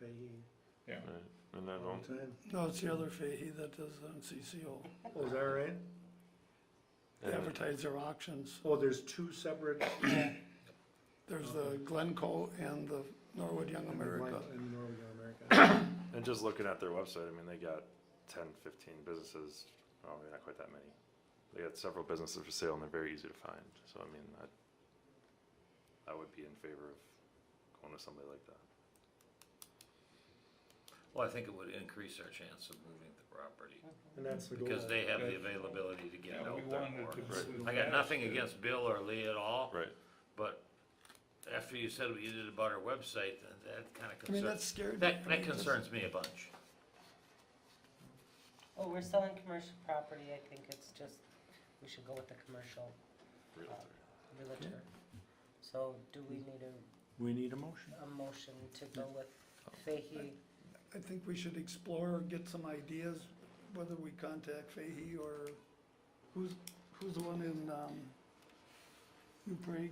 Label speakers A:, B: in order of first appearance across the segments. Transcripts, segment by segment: A: Fahey
B: yeah.
C: Right, and
D: Um,
C: that
A: all
C: won't,
A: the time.
D: No, it's the other Fahey that does MCCO.
A: Oh, is that right?
D: They advertise their auctions.
A: Oh, there's two separate.
D: There's the Glencoe and the Norwood Young America.
A: In Norway, America.
C: and just looking at their website, I mean, they got 10, 15 businesses, oh, maybe not quite that many. They got several businesses for sale and they're very easy to find, so I mean, I, I would be in favor of going to somebody like that.
E: Well, I think it would increase our chance of moving the property,
A: And that's the goal.
E: because they have the
B: Yeah.
E: availability to get it
B: Yeah, we
E: out there
B: wanted
E: more.
B: to
C: Right.
B: pursue
E: I got
B: that.
E: nothing against Bill or Lee at all,
C: Right,
E: but after you said what you did about our website, that, that kinda
D: I mean, that
E: concerns,
D: scared me.
E: that, that concerns me a bunch.
F: Oh, we're selling commercial property, I think it's just, we should go with the commercial
C: Realtor.
F: realtor. So do we need a,
A: We need a motion.
F: a motion to go with Fahey?
D: I think we should explore, get some ideas, whether we contact Fahey or who's, who's the one in, um, New Prague?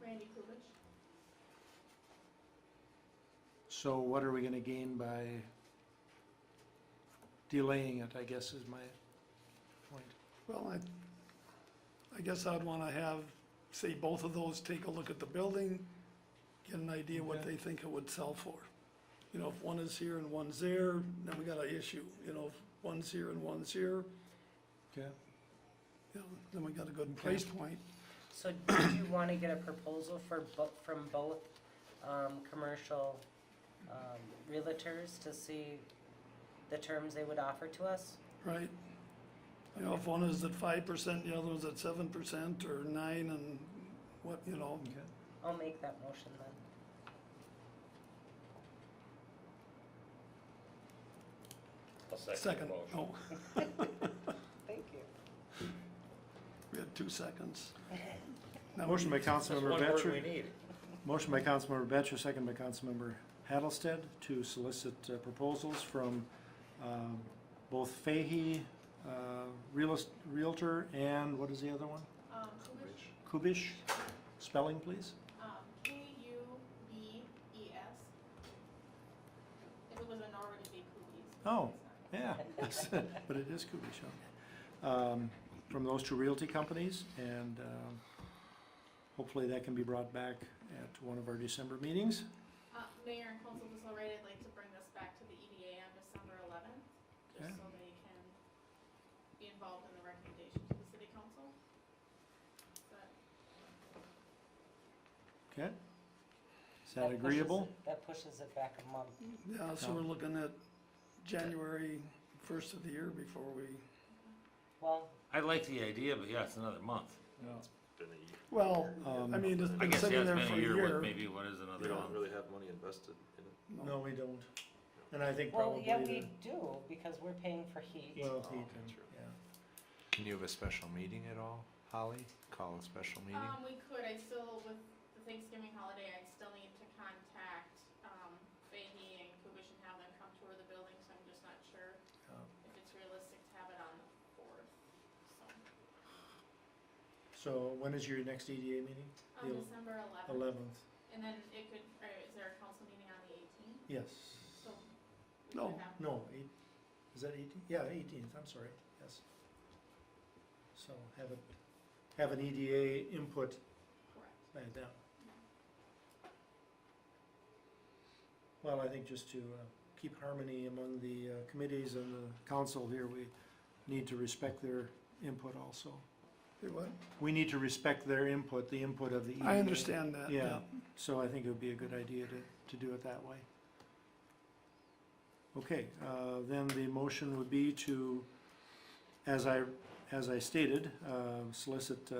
G: Randy Kulish?
A: So what are we gonna gain by delaying it, I guess is my point.
D: Well, I, I guess I'd wanna have, say, both of those take a look at the building, get an idea what
A: Okay.
D: they think it would sell for. You know, if one is here and one's there, then we got an issue, you know, if one's here and one's here,
A: Okay.
D: you know, then we got a good price point.
F: So do you wanna get a proposal for bo- from both, um, commercial, um, realtors to see the terms they would offer to us?
D: Right? You know, if one is at five percent, the other one's at seven percent or nine and what, you know,
A: Okay.
F: I'll make that motion then.
E: I'll second the
D: second,
E: motion.
D: oh,
F: Thank you.
D: we had two seconds. Now,
A: Motion by
E: That's
A: Councilmember
E: one word we
A: Batchor,
E: need.
A: motion by Councilmember Batchor, second by Councilmember Hattlestead to solicit uh, proposals from, um, both Fahey, uh, realist, Realtor and what is the other one?
G: Um, Kulish,
A: Kubish, spelling please?
G: um, K U B E S. If it was a Norwood, it'd be Kulish.
A: Oh. Yeah, but it is Kubish, okay. Um, from those two realty companies, and, um, hopefully that can be brought back at one of our December meetings.
G: Uh, Mayor and Council, just already, I'd like to bring this back to the EDA on December eleventh,
A: Okay.
G: just so they can be involved in the recommendation to the city council. But
A: Okay? Is that agreeable?
F: That pushes it back a month.
D: Yeah, so we're looking at January first of the year before we,
F: Well,
E: I like the idea, but yeah, it's another month.
C: Been a year.
D: well,
A: Um,
D: I mean, it's
E: I
D: been
E: guess, yeah,
D: sitting
E: it's
D: there
E: been
D: for
E: a
D: a
E: year, what,
D: year.
E: maybe what is
C: They
E: another
C: don't
E: month?
C: really have money invested in it.
A: No, we don't. And I think
F: well,
A: probably.
F: yeah,
A: the-
F: we do, because we're paying for heat.
A: Well,
C: Oh,
A: he
C: okay,
A: can,
C: true.
A: yeah.
H: Can you have a special meeting at all, Holly? Call a special meeting?
G: Um, we could, I still, with the Thanksgiving holiday, I still need to contact, um, Fahey and Kubish and have them come tour the building, so I'm just not sure
A: Oh.
G: if it's realistic to have it on the fourth,
A: So
G: so,
A: when is your next EDA meeting?
G: on
A: The
G: December eleventh.
A: Eleventh,
G: And then it could, or is there a council meeting on the eighteenth?
A: yes.
G: So. we
D: No.
G: could have-
A: No, eight, is that eighteen? Yeah, eighteenth, I'm sorry, yes. So have it, have an EDA input
G: Correct.
A: by then. Well, I think just to uh, keep harmony among the uh, committees and the council here, we need to respect their input also.
D: Hey, what?
A: We need to respect their input, the input of the E EDA.
D: I understand that,
A: Yeah,
D: yeah.
A: so I think it would be a good idea to, to do it that way. Okay, uh, then the motion would be to, as I, as I stated, uh, solicit uh,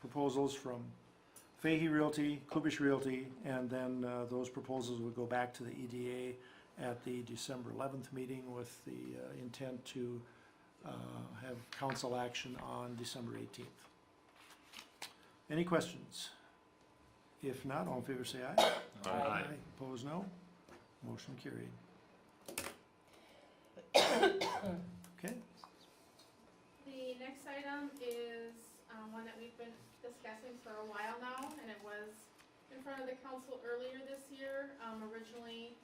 A: proposals from Fahey Realty, Kubish Realty, and then uh, those proposals would go back to the EDA at the December eleventh meeting with the uh, intent to uh, have council action on December eighteenth. Any questions? If not, all in favor say aye.
E: Aye.
A: Opposed, no. Motion carried. Okay,
G: The next item is um, one that we've been discussing for a while now, and it was in front of the council earlier this year. Um, Originally,